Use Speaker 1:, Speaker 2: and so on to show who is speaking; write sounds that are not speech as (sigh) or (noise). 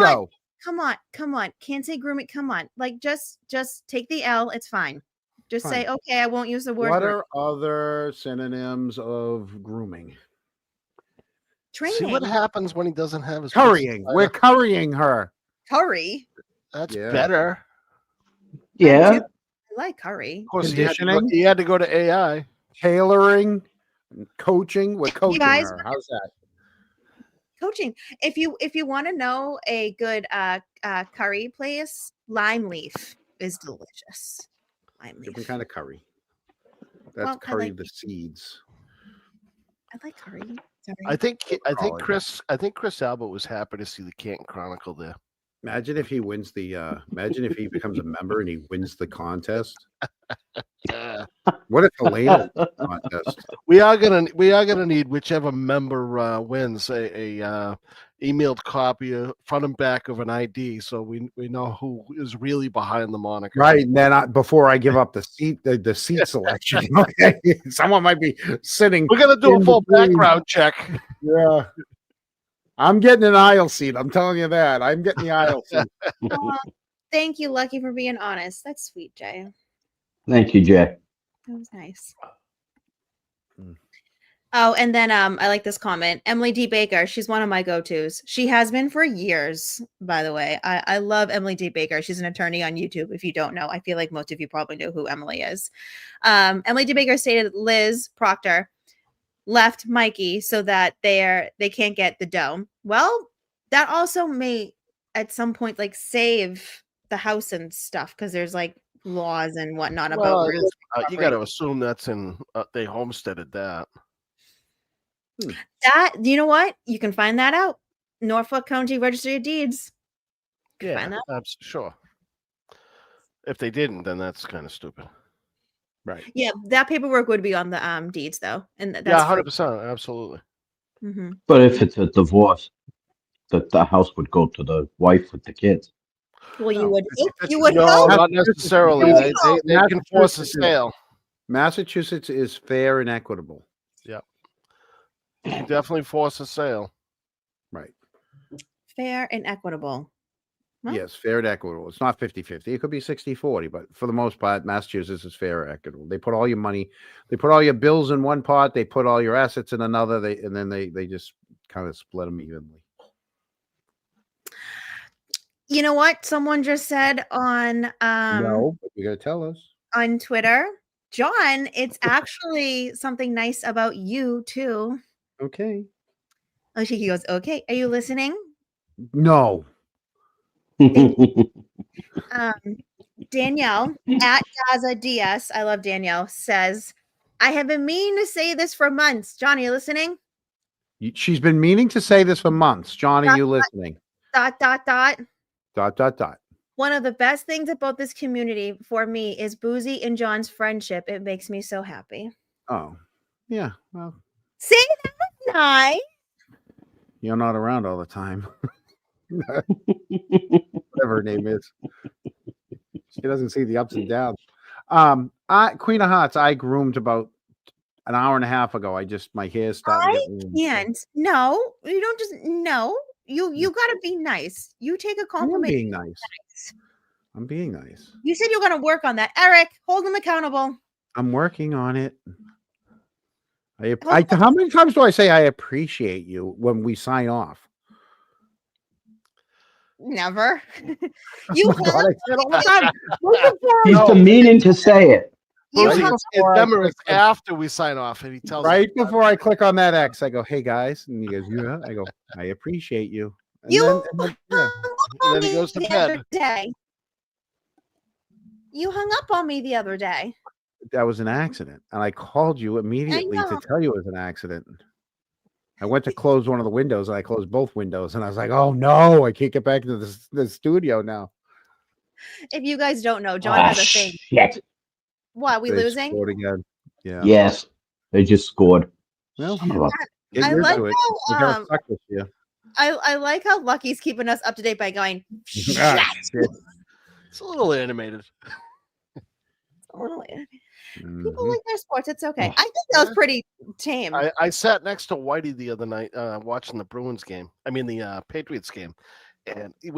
Speaker 1: on.
Speaker 2: show.
Speaker 1: Come on, come on. Can't say grooming. Come on. Like just just take the L. It's fine. Just say, okay, I won't use the word
Speaker 2: What
Speaker 1: groom."
Speaker 2: are other synonyms of grooming?
Speaker 1: training.
Speaker 3: See what happens when he doesn't have his
Speaker 2: Currying.
Speaker 3: pencil.
Speaker 2: We're currying her.
Speaker 1: curry.
Speaker 3: That's
Speaker 2: Yeah.
Speaker 3: better.
Speaker 4: Yeah.
Speaker 1: I like curry.
Speaker 3: Of course, he had, to go,
Speaker 2: Conditioning?
Speaker 3: he had to go to AI.
Speaker 2: Tailoring, coaching. We're coaching
Speaker 1: guys-
Speaker 2: her. How's that?
Speaker 1: Coaching. If you if you want to know a good uh, uh curry place, lime leaf is delicious. Lime
Speaker 2: Different
Speaker 1: leaf.
Speaker 2: kind of curry. That's
Speaker 1: Well, I
Speaker 2: curry
Speaker 1: like-
Speaker 2: the seeds.
Speaker 1: I like curry. Sorry.
Speaker 3: I think I think
Speaker 2: Probably.
Speaker 3: Chris I think Chris Albert was happy to see the Canton Chronicle there.
Speaker 2: Imagine if he wins the. Uh, imagine if he becomes a member and he wins the contest.
Speaker 3: Yeah.
Speaker 2: What if
Speaker 1: (laughs)
Speaker 2: Elena wins the contest?
Speaker 3: We are gonna we are gonna need whichever member uh, wins a, a uh, emailed copy of front and back of an ID, so we we know who is really behind the moniker.
Speaker 2: Right. And then I, before I give up the seat, the, the seat selection. (laughs) Okay. Someone might be sitting.
Speaker 3: We're gonna do
Speaker 2: In
Speaker 3: a full
Speaker 2: between.
Speaker 3: background check.
Speaker 2: Yeah. I'm getting an aisle seat. I'm telling you that. I'm getting the aisle
Speaker 1: (laughs)
Speaker 2: seat.
Speaker 1: Aw, thank you, Lucky, for being honest. That's sweet, Jay.
Speaker 4: Thank you, Jay.
Speaker 1: That was nice.
Speaker 2: Mm.
Speaker 1: Oh, and then um, I like this comment. Emily D. Baker, she's one of my go-tos. She has been for years, by the way. I, I love Emily D. Baker. She's an attorney on YouTube. If you don't know, I feel like most of you probably know who Emily is. Um, Emily D. Baker stated that Liz Proctor left Mikey so that they're they can't get the dome. Well, that also may at some point like save the house and stuff because there's like laws and whatnot about
Speaker 3: Well,
Speaker 1: real
Speaker 3: uh, you got to assume that's in uh, they homesteaded that.
Speaker 1: That you know what? You can find that out. Norfolk County Registry of Deeds.
Speaker 3: Yeah,
Speaker 1: find that.
Speaker 3: abs- sure. If they didn't, then that's kind of stupid.
Speaker 2: Right.
Speaker 1: Yeah, that paperwork would be on the um deeds though. And th- that's
Speaker 3: yeah, hundred percent, absolutely.
Speaker 1: hmm
Speaker 4: But if it's a divorce, the, the house would go to the wife with the kids.
Speaker 1: Well, you
Speaker 2: No,
Speaker 1: would
Speaker 2: it's-
Speaker 1: hope-
Speaker 2: it's-
Speaker 1: you would
Speaker 3: no,
Speaker 1: hope.
Speaker 3: not necessarily. They, they, they can force
Speaker 2: Massachusetts
Speaker 3: a
Speaker 2: is-
Speaker 3: sale.
Speaker 2: Massachusetts is fair and equitable.
Speaker 3: You can definitely force a sale.
Speaker 2: Right.
Speaker 1: fair and equitable. Huh?
Speaker 2: Yes, fair and equitable. It's not 50 50. It could be 60 40, but for the most part, Massachusetts is fair and equitable. They put all your money, they put all your bills in one pot, they put all your assets in another, they and then they they just kind of split them evenly.
Speaker 1: You know what? Someone just said on um
Speaker 2: no, but you're going to tell us.
Speaker 1: on Twitter, John, it's actually something nice about you too.
Speaker 2: Okay.
Speaker 1: Oh, she goes, okay. Are you listening?
Speaker 2: No.
Speaker 1: um, Danielle at Gaza DS, I love Danielle, says, I have been meaning to say this for months. John, are you listening?
Speaker 2: You- She's been meaning to say this for months. John,
Speaker 1: Dot,
Speaker 2: are you listening?
Speaker 1: Dot, dot, dot.
Speaker 2: Dot, dot, dot.
Speaker 1: One of the best things about this community for me is Boozy and John's friendship. It makes me so happy.
Speaker 2: Oh, yeah. Well,
Speaker 1: See, that was nice.
Speaker 2: you're not around all the time. (laughs) whatever her name is. She doesn't see the ups and downs. Um, I Queen of Hearts, I groomed about an hour and a half ago. I just my hair started. to get
Speaker 3: Mm-hmm.
Speaker 2: ruined, so-
Speaker 1: And no, you don't just no. You you gotta
Speaker 3: Mm-hmm.
Speaker 1: be nice. You take a
Speaker 2: I am
Speaker 1: compliment.
Speaker 2: being nice. I'm being nice.
Speaker 1: You said you're gonna work on that. Eric, hold them accountable.
Speaker 2: I'm working on it. I, ap-
Speaker 1: Well,
Speaker 2: I how many times do I say I appreciate you when we sign off?
Speaker 1: Never. (laughs)
Speaker 3: (laughs)
Speaker 1: you
Speaker 2: Oh my God,
Speaker 1: have
Speaker 2: I say it all the
Speaker 3: Uh,
Speaker 2: time.
Speaker 4: He's been meaning to say it.
Speaker 1: you
Speaker 3: Right
Speaker 2: Right
Speaker 1: have
Speaker 2: before I (laughs)
Speaker 3: Remember,
Speaker 2: click
Speaker 3: it's after we sign off, and he
Speaker 2: on-
Speaker 3: tells
Speaker 2: right before I click on that X, I go, "Hey guys," and he goes, "Yeah." I go, "I appreciate you." And
Speaker 1: You
Speaker 2: then- and then-
Speaker 1: (laughs)
Speaker 2: yeah.
Speaker 1: hung
Speaker 3: And then he
Speaker 1: up on
Speaker 3: goes to
Speaker 1: me the
Speaker 3: bed.
Speaker 1: other day. You hung up on me the other day.
Speaker 2: that was an accident. And I called you immediately to
Speaker 1: know.
Speaker 2: tell you it was an accident. I went to close one of the windows and I closed both windows and I was like, oh no, I can't get back into this, the studio now.
Speaker 1: If you guys don't know, John
Speaker 4: Ah,
Speaker 1: has a thing.
Speaker 4: shit.
Speaker 1: What we
Speaker 2: They
Speaker 1: losing?
Speaker 2: scored again. Yeah.
Speaker 4: Yes. They just scored.
Speaker 2: Well,
Speaker 4: Son of a-
Speaker 2: get
Speaker 1: I
Speaker 2: used
Speaker 1: like
Speaker 2: to it.
Speaker 1: how
Speaker 2: We're gonna
Speaker 1: um,
Speaker 2: suck this year.
Speaker 1: I, I like how Lucky's keeping us up to date by going. Shit.
Speaker 2: Ah, shit.
Speaker 3: It's a little animated.
Speaker 1: Totally. People
Speaker 2: Mhm.
Speaker 1: like their sports. It's okay. I think that was pretty tame.
Speaker 3: I, I sat next to Whitey the other night uh, watching the Bruins game. I mean the uh, Patriots game, and